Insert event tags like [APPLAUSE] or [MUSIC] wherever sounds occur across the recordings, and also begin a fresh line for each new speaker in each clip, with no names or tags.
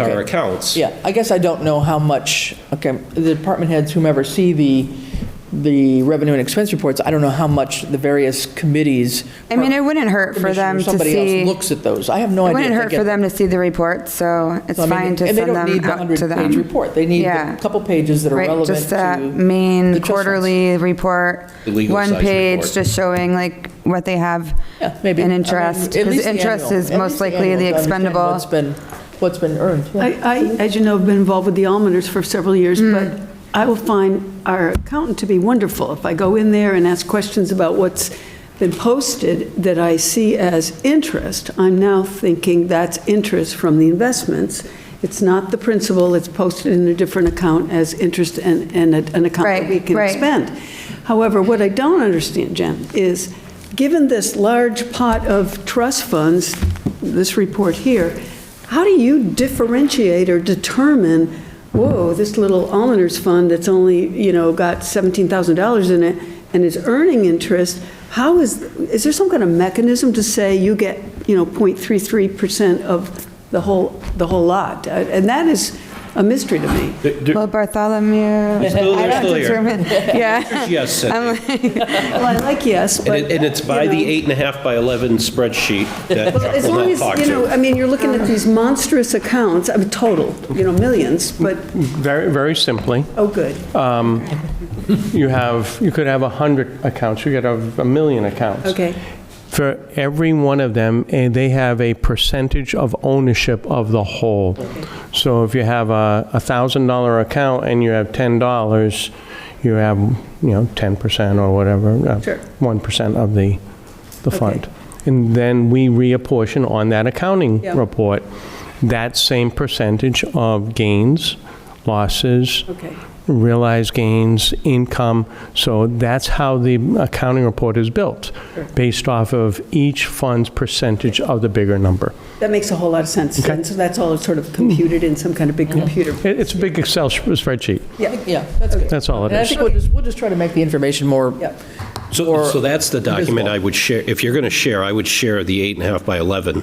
our
Okay.
accounts.
Yeah, I guess I don't know how much, okay, the department heads, whomever see the, the revenue and expense reports, I don't know how much the various committees.
I mean, it wouldn't hurt for
Commission or
them to
Somebody
see-
else looks at those. I have no
It
idea.
wouldn't
if they
hurt
get
for them to see the report, so it's
So, I mean,
fine to
and
send
they
them
don't need the
out to
100-page
them.
report. They need the
Yeah.
couple pages that are
Right,
relevant
just uh, that
to the
main
trust funds.
quarterly report,
The legal
one
size
page,
report.
just showing like what they have
Yeah, maybe.
in
I mean,
interest.
at
Because
least the
interest
annual- at
is
least
most likely
annual
the
to understand
expendable.
What's been, what's been earned, yeah.
I, I, as you know, have been involved with the almoners for several years, but I will find our accountant to be wonderful. If I go in there and ask questions about what's been posted that I see as interest, I'm now thinking that's interest from the investments. It's not the principal, it's posted in a different account as interest and, and a- an account that we
Right,
can
right.
spend. However, what I don't understand, Jen, is, given this large pot of trust funds, this report here, how do you differentiate or determine, whoa, this little almoners fund that's only, you know, got $17,000 in it and is earning interest, how is, is there some kind of mechanism to say you get, you know, 0.33% of the whole, the whole lot? And that is a mystery to me.
Th- th-
Well, Bartholomew, I
still there,
don't
still there.
determine, [LAUGHS] yeah.
Yes, Cindy.
Well, I like yes,
and
but.
it- and it's by
you
the
know.
eight and a half by 11 spreadsheet that
Well,
Chuck
As
will
long
not
as,
talk
you know,
to.
I mean, you're looking at these monstrous accounts, I mean, total, you know, millions, but,
Very, very simply,
oh, good.
Uh,
you have, you could have 100 accounts, you could have a million accounts.
Okay.
For every one of them, eh, they have a percentage of ownership of the whole. So if you have a a $1,000 account and you have $10, you have, you know, 10% or whatever, uh,
Sure.
1% of the, the
Okay.
fund. And then we reapportion on that accounting
Yeah.
report, that same percentage of gains, losses,
Okay.
realized gains, income. So that's how the accounting report is built, based off of each fund's percentage of the bigger number.
That makes a whole lot of sense. And so that's all sort of computed in some kind of big computer.
It- It's a big Excel sh- spreadsheet.
Yeah, that's good.
That's all it
And I
is.
think we'll just, we'll just try to make the information more
Yep.
So so that's the document I would share, if you're going to share, I would share the eight and a half by 11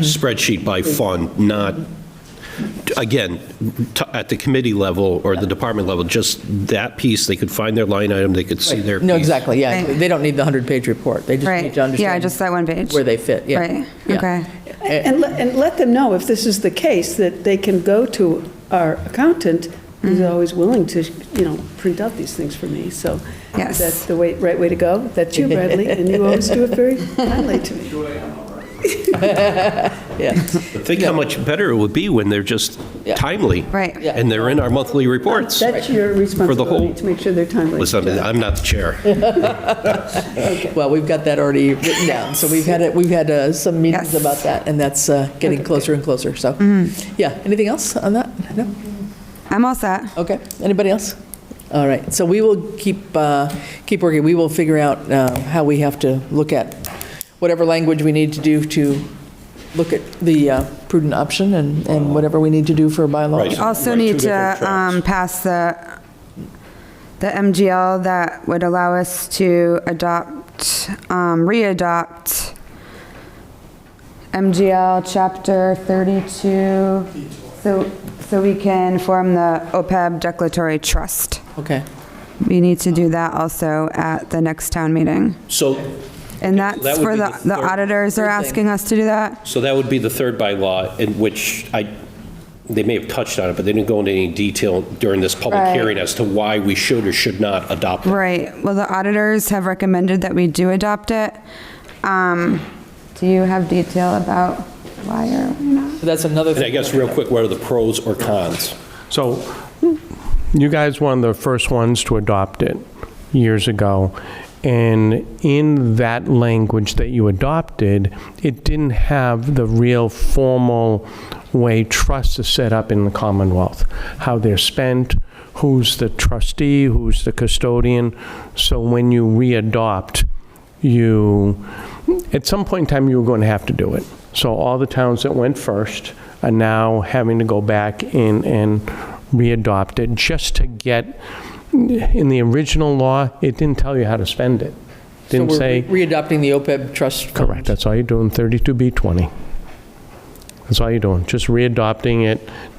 spreadsheet by fund, not, again, t- at the committee level or the department level, just that piece, they could find their line item, they could see their
No,
piece.
exactly, yeah.
Right.
They don't need the 100-page report. They just
Right.
need to
Yeah,
understand.
just that one page.
Where they fit, yeah.
Right,
Yeah.
okay.
And let, and let them know if this is the case, that they can go to our accountant, who's always willing to, you know, print out these things for me, so.
Yes.
That's the way, right way to go. That's you, Bradley, and you always do it very kindly to me.
Think how much better it would be when they're just
Yeah.
timely.
Right.
Yeah.
And they're in our monthly reports.
That's your responsibility,
whole-
to make sure they're timely.
Listen, I'm not the
[LAUGHS]
chair.
Well, we've got that already written down, so we've had, it. we've had uh, some meetings
Yes. Mm-hmm.
about that, and that's uh, getting closer and closer, so. Yeah, anything else on that? No?
I'm all set.
Okay, anybody else? All right, so we will keep, uh, keep working, we will figure out uh, how we have to look at whatever language we need to do to look at the uh, prudent option and, and whatever we need to do for bylaws.
Right.
Also
Right, two
need
different
to
tracks.
um, pass the, the MGL that would allow us to adopt, um, re-adopt MGL Chapter 32, so, so we can form the OPEB Declaratory Trust.
Okay,
We need to do that also at the next town meeting.
So
And
Yeah, so
that's
that would
for
be
the,
the
the
third-
auditors are
Third thing.
asking us to do that?
So that would be the third bylaw, in which I, they may have touched on it, but they didn't go into any detail during this public
Right.
hearing as to why we should or should not adopt it.
Right, well, the auditors have recommended that we do adopt it. Um, Do you have detail about why or why not?
so that's another
And I
thing.
guess, real quick, what are the pros or cons?
So you guys were one of the first ones to adopt it years ago. And in that language that you adopted, it didn't have the real formal way trusts are set up in the Commonwealth, how they're spent, who's the trustee, who's the custodian. So when you re-adopt, you, at some point in time, you were going to have to do it. So all the towns that went first are now having to go back and, and re-adopt it just to get, in the original law, it didn't tell you how to spend it.
So
Didn't
we're
say,
Readopting the OPEB trust. E fund.
correct, that's all you're doing, 32B20. That's all you're doing, just readopting it,